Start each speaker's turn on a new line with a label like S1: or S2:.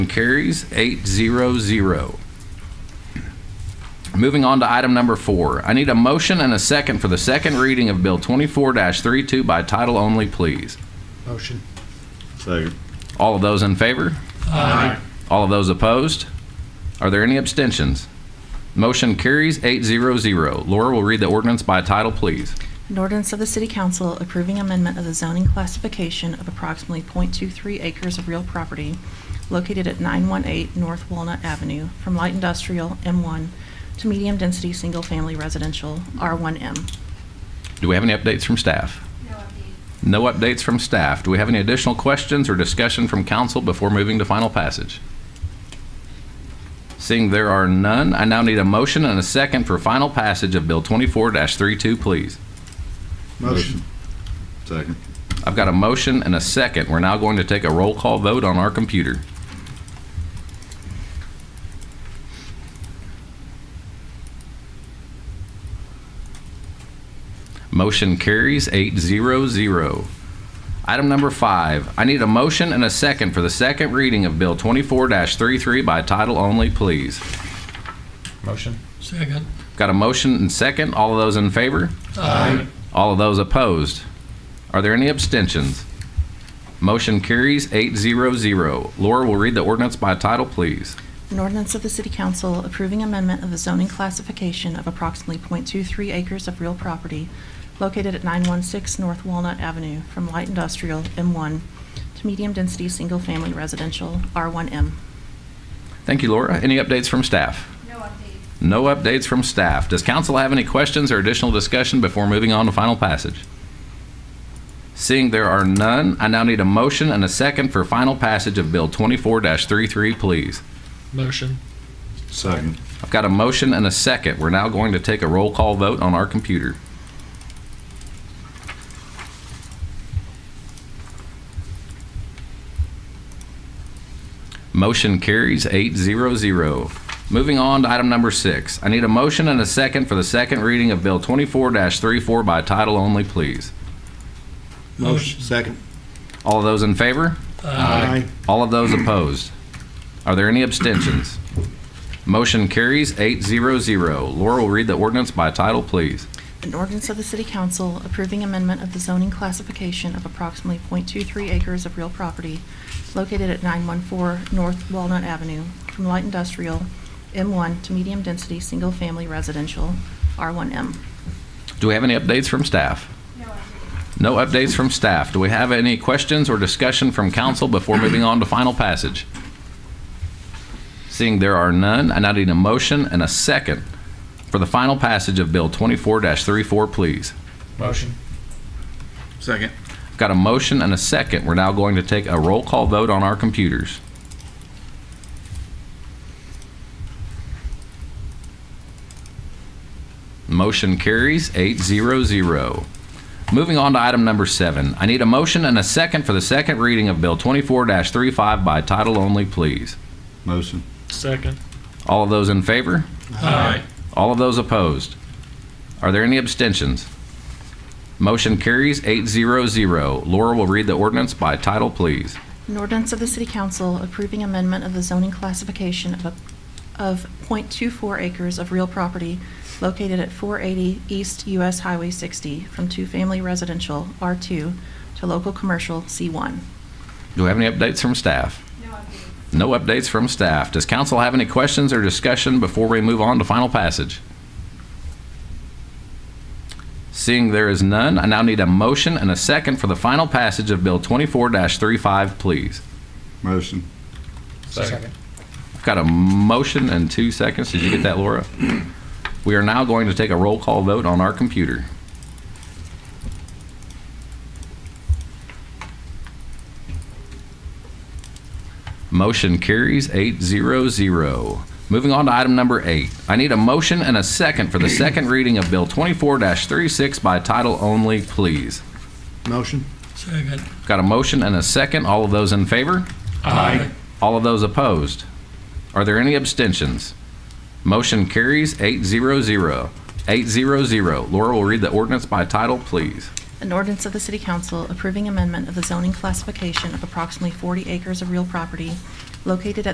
S1: Carries eight zero zero. Moving on to item number four. I need a motion and a second for the second reading of Bill 24-32 by title only, please.
S2: Motion.
S3: Second.
S1: All of those in favor?
S2: Aye.
S1: All of those opposed? Are there any abstentions? Motion carries eight zero zero. Laura will read the ordinance by title, please.
S4: An ordinance of the City Council approving amendment of the zoning classification of approximately .23 acres of real property located at 918 North Walnut Avenue from light industrial M1 to medium-density single-family residential R1M.
S1: Do we have any updates from staff? No updates from staff. Do we have any additional questions or discussion from council before moving to final passage? Seeing there are none, I now need a motion and a second for final passage of Bill 24-32, please.
S3: Motion. Second.
S1: I've got a motion and a second. We're now going to take a roll call vote on our computer. Motion carries eight zero zero. Item number five, I need a motion and a second for the second reading of Bill 24-33 by title only, please.
S5: Motion?
S2: Second.
S1: Got a motion and second. All of those in favor?
S2: Aye.
S1: All of those opposed? Are there any abstentions? Motion carries eight zero zero. Laura will read the ordinance by title, please.
S4: An ordinance of the City Council approving amendment of the zoning classification of approximately .23 acres of real property located at 916 North Walnut Avenue from light industrial M1 to medium-density single-family residential R1M.
S1: Thank you, Laura. Any updates from staff?
S6: No update.
S1: No updates from staff. Does council have any questions or additional discussion before moving on to final passage? Seeing there are none, I now need a motion and a second for final passage of Bill 24-33, please.
S2: Motion.
S3: Second.
S1: I've got a motion and a second. We're now going to take a roll call vote on our computer. Motion carries eight zero zero. Moving on to item number six. I need a motion and a second for the second reading of Bill 24-34 by title only, please.
S2: Motion.
S3: Second.
S1: All of those in favor?
S3: Aye.
S1: All of those opposed? Are there any abstentions? Motion carries eight zero zero. Laura will read the ordinance by title, please.
S4: An ordinance of the City Council approving amendment of the zoning classification of approximately .23 acres of real property located at 914 North Walnut Avenue from light industrial M1 to medium-density single-family residential R1M.
S1: Do we have any updates from staff?
S6: No update.
S1: No updates from staff. Do we have any questions or discussion from council before moving on to final passage? Seeing there are none, I now need a motion and a second for the final passage of Bill 24-34, please.
S5: Motion?
S3: Second.
S1: I've Got a motion and a second. We're now going to take a roll call vote on our computers. Motion carries eight zero zero. Moving on to item number seven. I need a motion and a second for the second reading of Bill 24-35 by title only, please.
S3: Motion.
S2: Second.
S1: All of those in favor?
S2: Aye.
S1: All of those opposed? Are there any abstentions? Motion carries eight zero zero. Laura will read the ordinance by title, please.
S4: An ordinance of the City Council approving amendment of the zoning classification of, a- of .24 acres of real property located at 480 East US Highway 60 from two-family residential R2 to local commercial C1.
S1: Do we have any updates from staff?
S6: No update.
S1: No updates from staff. Does council have any questions or discussion before we move on to final passage? Seeing there is none, I now need a motion and a second for the final passage of Bill 24-35, please.
S3: Motion.
S5: Second.
S1: I've got a motion and two seconds. Did you get that, Laura? We are now going to take a roll call vote on our computer. Motion carries eight zero zero. Moving on to item number eight. I need a motion and a second for the second reading of Bill 24-36 by title only, please.
S3: Motion.
S2: Second.
S1: Got a motion and a second. All of those in favor?
S2: Aye.
S1: All of those opposed? Are there any abstentions? Motion carries 800. 800. Laura will read the ordinance by title, please.
S4: An ordinance of the City Council approving amendment of the zoning classification of approximately 40 acres of real property located at